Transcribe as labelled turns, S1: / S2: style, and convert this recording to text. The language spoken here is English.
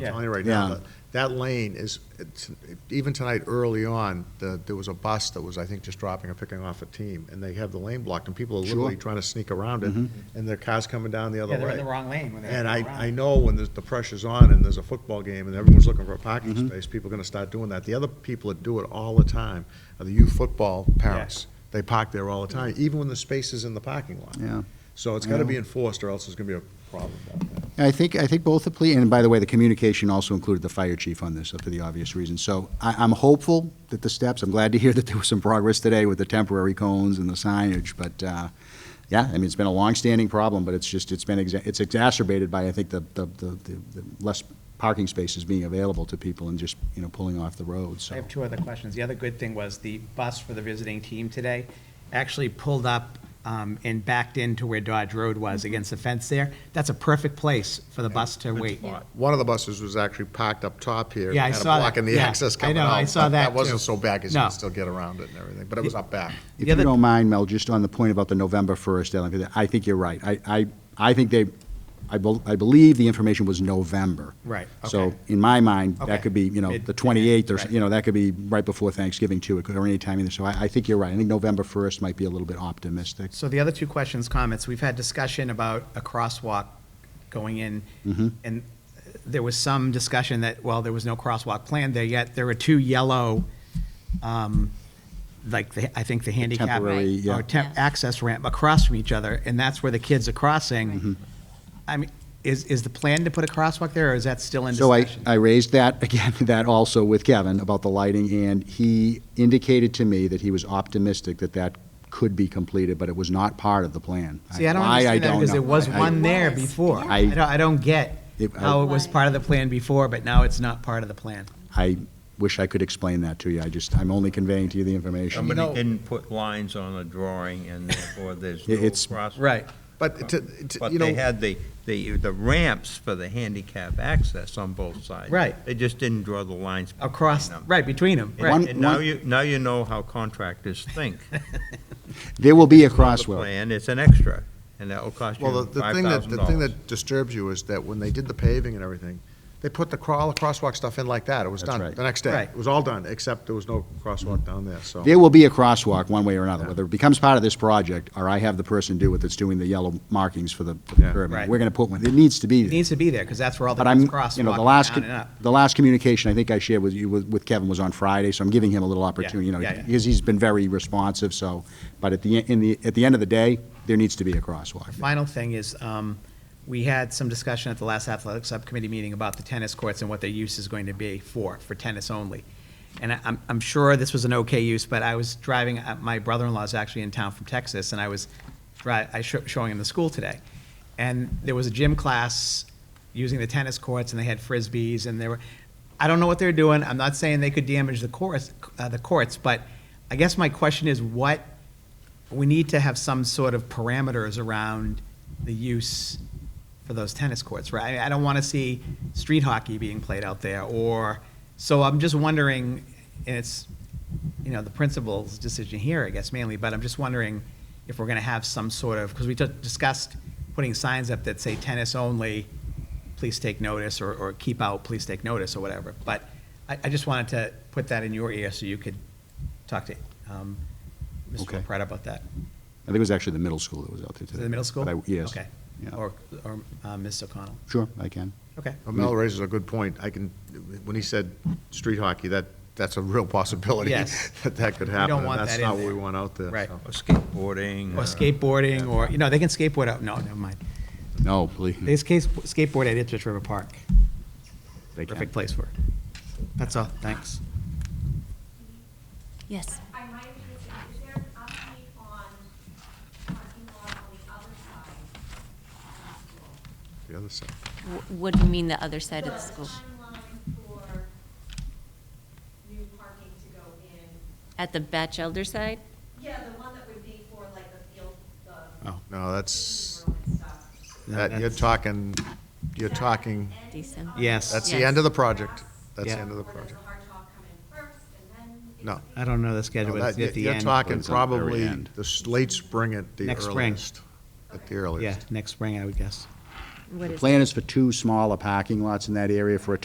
S1: telling you right
S2: Yeah.
S1: now, that- that lane is, it's- even tonight, early on, the- there was a bus that was, I think, just dropping or picking off a team, and they have the lane blocked, and people are literally
S2: Sure. Mm-hmm.
S1: trying to sneak around it, and their car's coming down the other
S3: Yeah,
S1: way.
S3: they're in the wrong lane when they
S1: And I,
S3: go around.
S1: I know when there's- the pressure's on and there's a football game and everyone's looking for a
S2: Mm-hmm.
S1: parking space, people are gonna start doing that. The other people that do it all the time are the youth football parents. They park there all the time, even when the space is in the parking lot.
S2: Yeah.
S1: So it's gotta be enforced, or else there's gonna be a problem down there.
S2: I think, I think both the plea, and by the way, the communication also included the fire chief on this, uh, for the obvious reason. So I, I'm hopeful that the steps, I'm glad to hear that there was some progress today with the temporary cones and the signage, but, uh, yeah, I mean, it's been a longstanding problem, but it's just, it's been, exa- it's exacerbated by, I think, the, the, the, the the less parking spaces being available to people and just, you know, pulling off the road,
S3: I
S2: so.
S3: have two other questions. The other good thing was the bus for the visiting team today actually pulled up um, and backed into where Dodge Road was against the fence there. That's a perfect place for the bus to wait.
S1: One of the buses was actually parked up top here.
S3: Yeah, I
S1: kinda
S3: saw that.
S1: Blocking the
S3: Yeah,
S1: access
S3: I
S1: coming
S3: know,
S1: out.
S3: I saw
S1: but
S3: that
S1: That wasn't
S3: too.
S1: so bad, because you
S3: No.
S1: could still get around it and everything, but it was up back.
S2: If
S3: The
S2: you
S3: other-
S2: don't mind, Mel, just on the point about the November 1st deadline, because I think you're right. I, I, I think they, I bel- I believe the information was November.
S3: Right,
S2: So
S3: okay.
S2: in my mind,
S3: Okay.
S2: that could be, you know,
S3: Mid-
S2: the 28th, or, s-
S3: right.
S2: you know, that could be right before Thanksgiving too, It could- or any time either. So I, I think you're right. I think November 1st might be a little bit optimistic.
S3: So the other two questions, comments, we've had discussion about a crosswalk going in,
S2: Mm-hmm.
S3: and there was some discussion that, well, there was no crosswalk planned there yet. There were two yellow, um, like, the- I think the handicap.
S2: temporary, yeah.
S3: Or temp,
S4: Yeah.
S3: access ramp across from each other, and that's where the kids are
S2: Mm-hmm.
S3: crossing. I mean, is, is the plan to put a crosswalk there, or is that still in
S2: So I,
S3: discussion?
S2: I raised that, again, that also with Kevin about the lighting, and he indicated to me that he was optimistic that that could be completed, but it was not part of the plan.
S3: See, I don't
S2: Why,
S3: understand that,
S2: don't
S3: because there
S2: know.
S3: was
S2: I-
S3: one there
S4: Was,
S3: before.
S4: yeah.
S2: I-
S3: I don't, I don't get
S2: It- I-
S3: how it was
S4: Why?
S3: part of the plan before, but now it's not part of the plan.
S2: I wish I could explain that to you. I just, I'm only conveying to you the information.
S5: Somebody didn't put lines on a drawing and therefore there's no
S2: It's-
S5: crosswalk.
S3: Right.
S1: But to, to-
S5: But
S1: you know.
S5: they had the, the, the ramps for the handicap access on both sides.
S3: Right.
S5: They just didn't draw the lines. between
S3: Across,
S5: them.
S3: right, between them,
S5: And-
S3: right.
S2: One-
S5: And now you, now you know how contractors think.
S2: There will be a
S5: On the
S2: crosswalk.
S5: plan, it's an extra, and that'll cost you
S1: Well, the, the thing that, the thing
S5: $5,000.
S1: that disturbs you is that when they did the paving and everything, they put the crawl, crosswalk stuff in like that. It was
S2: That's
S1: done
S2: right.
S1: the next day.
S3: Right.
S1: It was all done, except there was no crosswalk down there, so.
S2: There will be a crosswalk, one way or another, whether it becomes part of this project, or I have the person do it that's doing the yellow markings for the for the
S1: Yeah.
S2: curb.
S3: Right.
S2: We're going to put one, it needs to be
S3: It
S2: there.
S3: needs to be there, because that's where all the
S2: But I'm,
S3: kids
S2: you know, the
S3: crosswalk
S2: last,
S3: down
S2: con-
S3: and up.
S2: the last communication I think I shared with you, with with Kevin, was on Friday, so I'm giving him a little opportunity, you know,
S3: yeah, yeah.
S2: because he's been very responsive, so, but at the, en- in the, at the end of the day, there needs to be a crosswalk.
S3: Final thing is, um, we had some discussion at the last athletic subcommittee meeting about the tennis courts and what their use is going to be for, for tennis only. And I- I'm, I'm sure this was an okay use, but I was driving, uh, my brother-in-law's actually in town from Texas, and I was dri, I sho- showing him the school today. And there was a gym class using the tennis courts, and they had frisbees, and there were, I don't know what they're doing, I'm not saying they could damage the course, uh, the courts, but I guess my question is, what we need to have some sort of parameters around the use for those tennis courts, right? I mean, I don't want to see street hockey being played out there, or, so I'm just wondering, and it's, you know, the principal's decision here, I guess mainly, but I'm just wondering if we're going to have some sort of, because we t- discussed putting signs up that say tennis only, please take notice, or, or keep out, please take notice, or whatever. But I, I just wanted to put that in your ear so you could talk to, um,
S2: Okay.
S3: Mr. Pratt about that.
S2: I think it was actually the middle school that was out there
S3: To
S2: today.
S3: the middle school?
S2: But I- Yes.
S3: Okay.
S2: Yeah.
S3: Or, or uh, Ms. O'Connell.
S2: Sure, I can.
S3: Okay.
S1: Well, Mel raises a good point. I can, when he said street hockey, that, that's a real possibility.
S3: Yes.
S1: That that could
S3: We don't
S1: happen. and
S3: want that
S1: That's
S3: in
S1: not what
S3: there.
S1: we want out there.
S3: Right.
S1: so.
S5: Or skateboarding.
S3: Or skateboarding, or, you know, they can skateboard out, no, never mind.
S2: No, please.
S3: They skate- skateboard at Ipswich River Park.
S2: They can.
S3: Perfect place for it. That's all, thanks.
S4: Yes.
S6: I might be missing, is there an update on parking lot on the other side?
S1: The other side.
S4: Wh- What do you mean the other side of the school?
S6: timeline for new parking to go in,
S4: At the Batch Elder side?
S6: yeah, the one that would be for like the field, the
S3: Oh.
S1: No, that's,
S6: meeting room and stuff.
S3: No,
S1: that, you're
S3: that's-
S1: talking, you're
S6: Is that
S1: talking,
S6: end
S4: Decent.
S6: of
S3: Yes.
S1: that's the
S4: Yes.
S1: end of the project. That's the
S3: Yeah.
S1: end of the
S6: Or does the
S1: project.
S6: hard talk come in first and then? it
S1: No.
S6: could be-
S3: I don't know the schedule,
S1: No,
S3: but
S1: that-
S3: it's at the
S1: You're
S3: end.
S1: talking
S2: It's at the very
S1: probably
S2: end.
S1: the s- late spring at the
S3: Next spring.
S1: earliest. At the earliest.
S3: Yeah, next spring, I would guess.
S4: What
S2: The
S4: is
S2: plan is for two smaller parking lots in that area for a